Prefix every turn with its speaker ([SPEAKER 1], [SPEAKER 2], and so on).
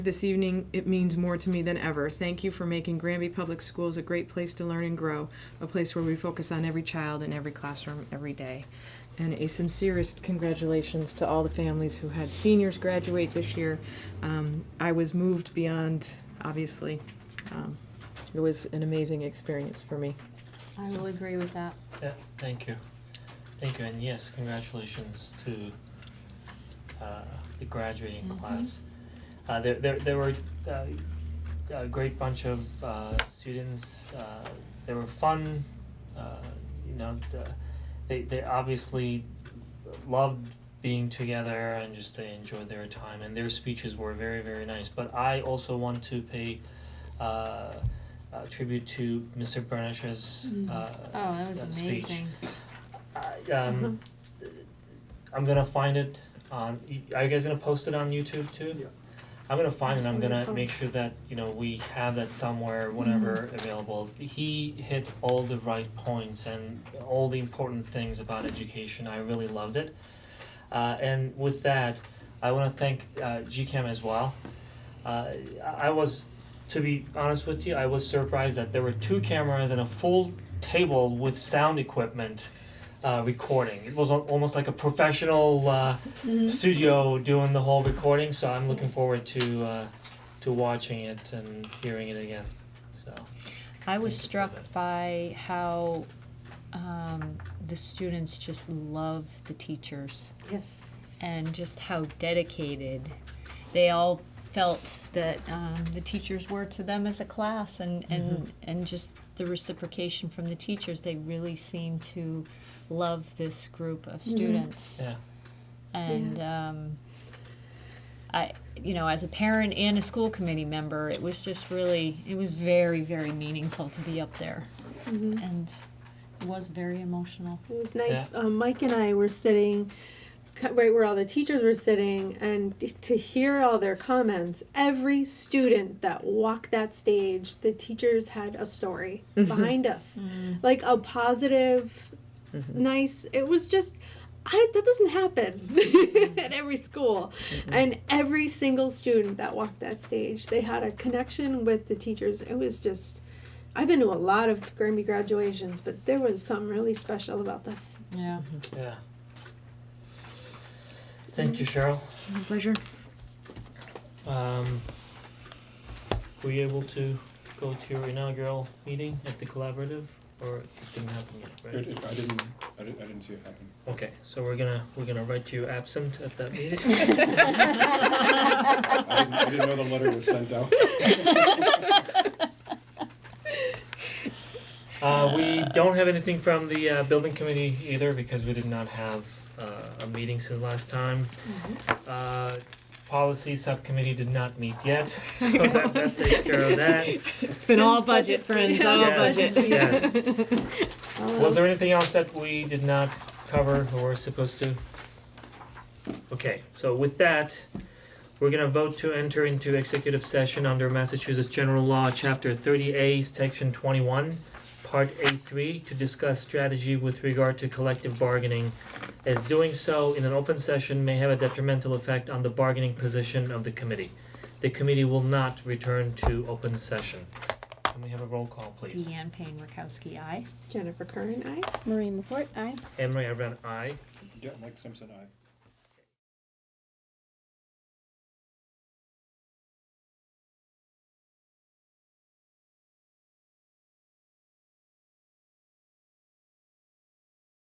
[SPEAKER 1] This evening, it means more to me than ever. Thank you for making Granby Public Schools a great place to learn and grow, a place where we focus on every child in every classroom every day. And a sincerest congratulations to all the families who had seniors graduate this year. Um, I was moved beyond, obviously. Um, it was an amazing experience for me.
[SPEAKER 2] I will agree with that.
[SPEAKER 3] Yeah, thank you. Thank you, and yes, congratulations to uh the graduating
[SPEAKER 2] Mhm.
[SPEAKER 3] class. Uh there there there were uh a great bunch of uh students, uh they were fun, uh you know, the they they obviously loved being together and just they enjoyed their time and their speeches were very, very nice. But I also want to pay uh uh tribute to Mr. Burnish's
[SPEAKER 2] Mhm.
[SPEAKER 3] uh
[SPEAKER 2] Oh, that was
[SPEAKER 3] That speech.
[SPEAKER 2] amazing.
[SPEAKER 3] I um I'm gonna find it on y- are you guys gonna post it on YouTube too?
[SPEAKER 4] Yeah.
[SPEAKER 3] I'm gonna find it, I'm gonna
[SPEAKER 1] wonderful.
[SPEAKER 3] make sure that, you know, we have that somewhere whenever available. He hit all the right points and all the important things about education, I really loved it. Uh and with that, I wanna thank uh GCAM as well. Uh I I was, to be honest with you, I was surprised that there were two cameras and a full table with sound equipment uh recording. It was al- almost like a professional uh studio doing the whole recording, so I'm looking forward to uh to watching it and hearing it again. So
[SPEAKER 5] I was
[SPEAKER 3] Thank you for
[SPEAKER 5] struck
[SPEAKER 3] that.
[SPEAKER 5] by how um, the students just love the teachers
[SPEAKER 2] Yes.
[SPEAKER 5] and just how dedicated they all felt that um, the teachers were to them as a class and,
[SPEAKER 3] Mm-hmm.
[SPEAKER 5] and, and just the reciprocation from the teachers. They really seem to love this group
[SPEAKER 2] Mm-hmm.
[SPEAKER 5] of students
[SPEAKER 3] yeah.
[SPEAKER 5] and um, I, you know, as a parent and a school committee member, it was just really, it was very, very meaningful to be up there, and it was very emotional.
[SPEAKER 6] It was nice. Um, Mike and I were sitting cu- right where all the teachers were sitting, and d- to hear all their comments, every student that walked that stage, the teachers had a story behind us, like a positive, nice. It was just. I, that doesn't happen at every school. And every single student that walked that stage, they had a connection with the teachers. It was just I've been to a lot of Grammy graduations, but there was something really special about this.
[SPEAKER 5] Yeah.
[SPEAKER 3] Yeah. Thank you, Cheryl.
[SPEAKER 1] My pleasure.
[SPEAKER 3] Um, were you able to go to your inaugural meeting at the collaborative, or it didn't happen yet, right?
[SPEAKER 4] It, it, I didn't, I didn't, I didn't see it happen.
[SPEAKER 3] Okay, so we're gonna we're gonna write you absent at that meeting.
[SPEAKER 4] I didn't, I didn't know the letter was sent out.
[SPEAKER 3] Uh, we don't have anything from the uh, building committee either because we did not have uh, a meeting since last time. Uh, policy subcommittee did not meet yet, so that that takes care of that.
[SPEAKER 1] It's been all budget, friends, all
[SPEAKER 3] Yes,
[SPEAKER 1] budget.
[SPEAKER 3] Yes.
[SPEAKER 6] All
[SPEAKER 3] Was there
[SPEAKER 6] else-
[SPEAKER 3] anything else that we did not cover or were supposed to? Okay, so with that, we're gonna vote to enter into executive session under Massachusetts General Law, Chapter thirty A, Section twenty-one, Part A three, to discuss strategy with regard to collective bargaining, as doing so in an open session may have a detrimental effect on the bargaining position of the committee. The committee will not return to open session. Can we have a roll call, please?
[SPEAKER 5] Deanne Payne Rakowski, I.
[SPEAKER 6] Jennifer Curran, I.
[SPEAKER 7] Maureen LaPorte, aye.
[SPEAKER 3] Emery, I ran aye.
[SPEAKER 4] Yeah, Mike Simpson, I.